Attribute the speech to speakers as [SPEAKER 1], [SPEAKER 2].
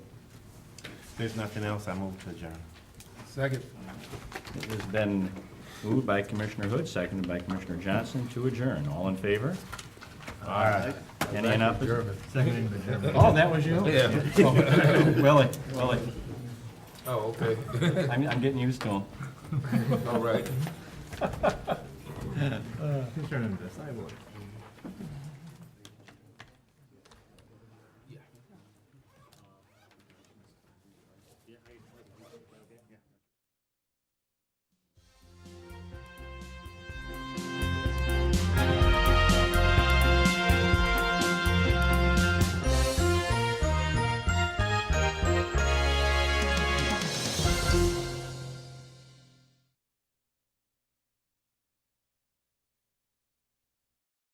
[SPEAKER 1] there's nothing else, I move to adjourn.
[SPEAKER 2] Second.
[SPEAKER 3] It has been moved by Commissioner Hood, seconded by Commissioner Johnson to adjourn. All in favor? Any in opposition?
[SPEAKER 2] Second in German.
[SPEAKER 3] Oh, that was you?
[SPEAKER 2] Yeah.
[SPEAKER 3] Willie, Willie,
[SPEAKER 2] Oh, okay,
[SPEAKER 3] I'm, I'm getting used to him.
[SPEAKER 2] all right.
[SPEAKER 1] Adjourn the sidewalk.